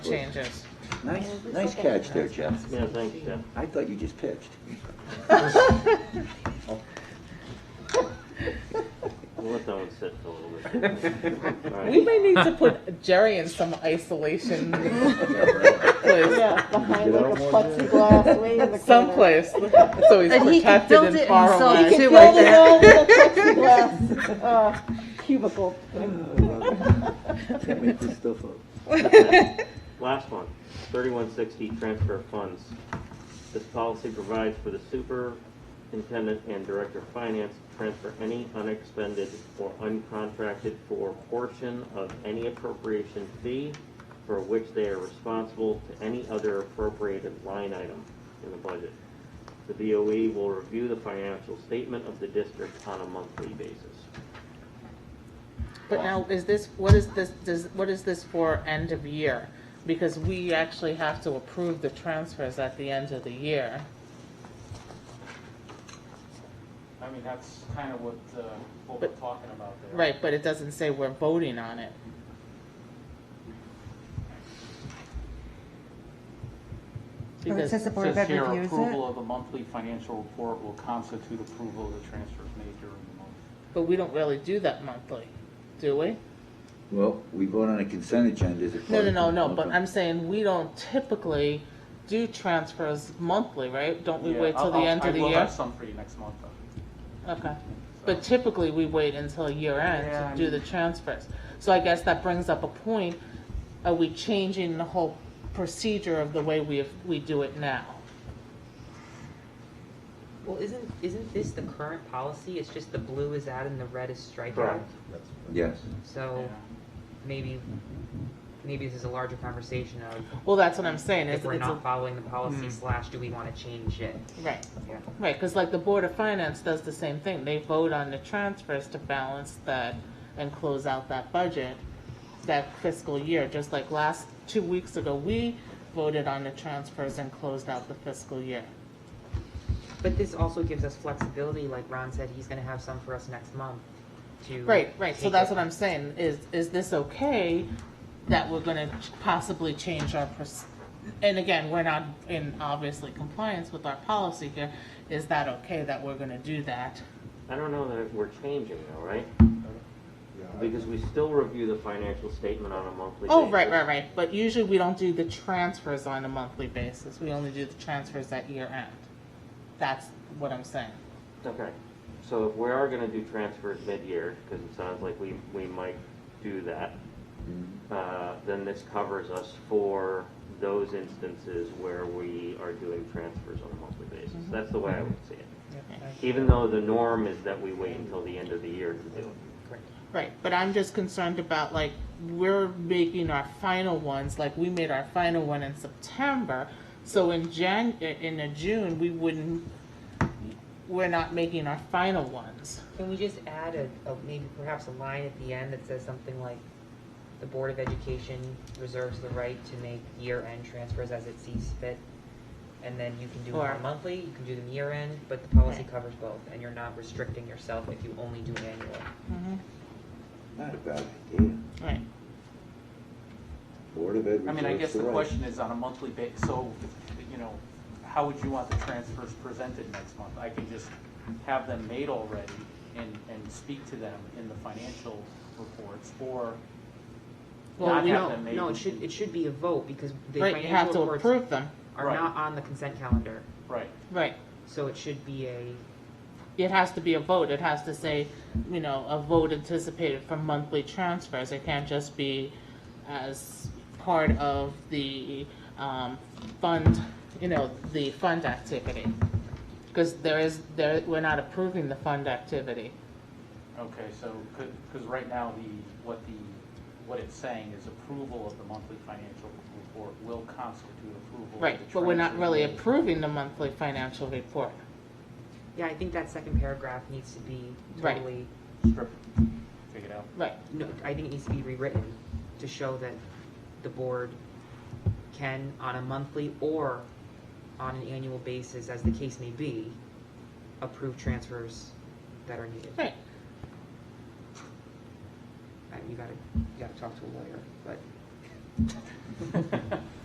changes. Nice, nice catch there, Jeff. Yeah, thanks, Jeff. I thought you just pitched. We'll let that one sit for a little bit. All right. We may need to put Jerry in some isolation place, Yeah, behind like a plexiglass way in the corner. someplace, so he's And he can protected build and it far himself away. too, Build it like that. all in a plexiglass uh, cubicle. Can't make this stuff up. Last one, thirty-one sixty, transfer of funds. This policy provides for the superintendent and director of finance to transfer any unexpended or uncontracted for portion of any appropriation fee for which they are responsible to any other appropriated line item in the budget. The BOE will review the financial statement of the district on a monthly basis. But now, is this, what is this, does, what is this for end of year? Because we actually have to approve the transfers at the end of the year. I mean, that's kind of what, uh, what we're But- talking about there. Right, but it doesn't say we're voting on it. Or it Because- says the Board It of says Ed here, reviews approval it. of the monthly financial report will constitute approval of the transfers made during the month. But we don't really do that monthly, do we? Well, we vote on a consent agenda as a No, part no, of- no, no, but Okay. I'm saying we don't typically do transfers monthly, right? Don't we Yeah, wait till I'll- the I'll- end of the I will year? have some for you next month, though. Okay. so. But typically, we wait until year end Yeah, I to do the mean- transfers. So I guess that brings up a point, are we changing the whole procedure of the way we, we do it now? Well, isn't, isn't this the current policy? It's just the blue is out and the red is striped out? Correct. Yes. So Yeah. maybe, maybe this is a larger conversation of Well, that's what I'm saying, if it's, we're it's, not a- following the policy slash, do we want to change it? right, Yeah. right, cause like the Board of Finance does the same thing, they vote on the transfers to balance that and close out that budget, that fiscal year, just like last, two weeks ago, we voted on the transfers and closed out the fiscal year. But this also gives us flexibility, like Ron said, he's gonna have some for us next month to. Right, right, so take that's it. what I'm saying, is, is this okay that we're gonna possibly change our, proc- and again, we're not in obviously compliance with our policy here, is that okay that we're gonna do that? I don't know that we're changing though, right? Because we still review the financial statement on a monthly basis. Oh, right, right, right, but usually we don't do the transfers on a monthly basis, we only do the transfers at year end. That's what I'm saying. Okay, so if we are gonna do transfers mid-year, because it sounds like we, we might do that, uh, then this covers us for those instances where we are doing transfers on a monthly basis. Mm-hmm. That's the way I would see it. Even though the norm is that we wait until the end of the year to do it. Right, but I'm just concerned about like, we're making our final ones, like we made our final one in September. So in Jan, in uh, June, we wouldn't, we're not making our final ones. Can we just add a, a, maybe perhaps a line at the end that says something like, the Board of Education reserves the right to make year-end transfers as it sees fit? And then you can do Or- them monthly, you can do them year-end, but the policy Right. covers both, and you're not restricting yourself if you only do annual. Not a bad idea. Right, Board of Ed I mean, I reserves guess the right. question is on a monthly ba, so, you know, how would you want the transfers presented next month? I could just have them made already and, and speak to them in the financial reports, or not have them made. No, it should, it should be a vote, because the right, you have to financial reports approve them, are Right. not on the consent calendar, Right, right. so it should be a, It has to be a vote, it has to say, you know, a vote anticipated for monthly transfers. It can't just be as part of the, um, fund, you know, the fund activity. Because there is, there, we're not approving the fund activity. okay, so, could, because right now, the, what the, what it's saying is approval of the monthly financial report will constitute approval of the Right, but we're not transfers really made. approving the monthly financial report. yeah, I think that second paragraph needs to be Right. totally. Strip, take it out. Right, No, I think it needs to be rewritten to show that the board can, on a monthly or on an annual basis, as the case may be, approve transfers that are needed. right. Uh, You gotta, you gotta talk to a lawyer, but.